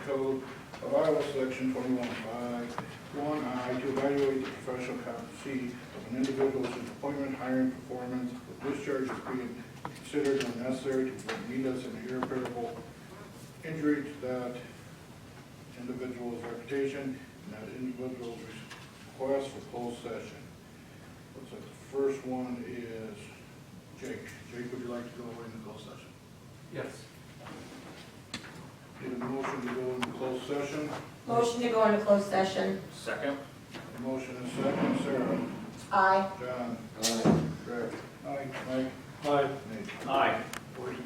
Code of Iowa, Section 21.5.1I, to evaluate the professional competency of an individual's employment, hiring, performance, with discharge is being considered unnecessary to meet us an irreparable injury to that individual's reputation and that individual's request for closed session. Looks like the first one is Jake. Jake, would you like to go into closed session? Yes. Need a motion to go into closed session? Motion to go into closed session. Second? Motion is second, Sarah, Aye. John, Greg. Aye. Mike. Aye. Nate. Aye.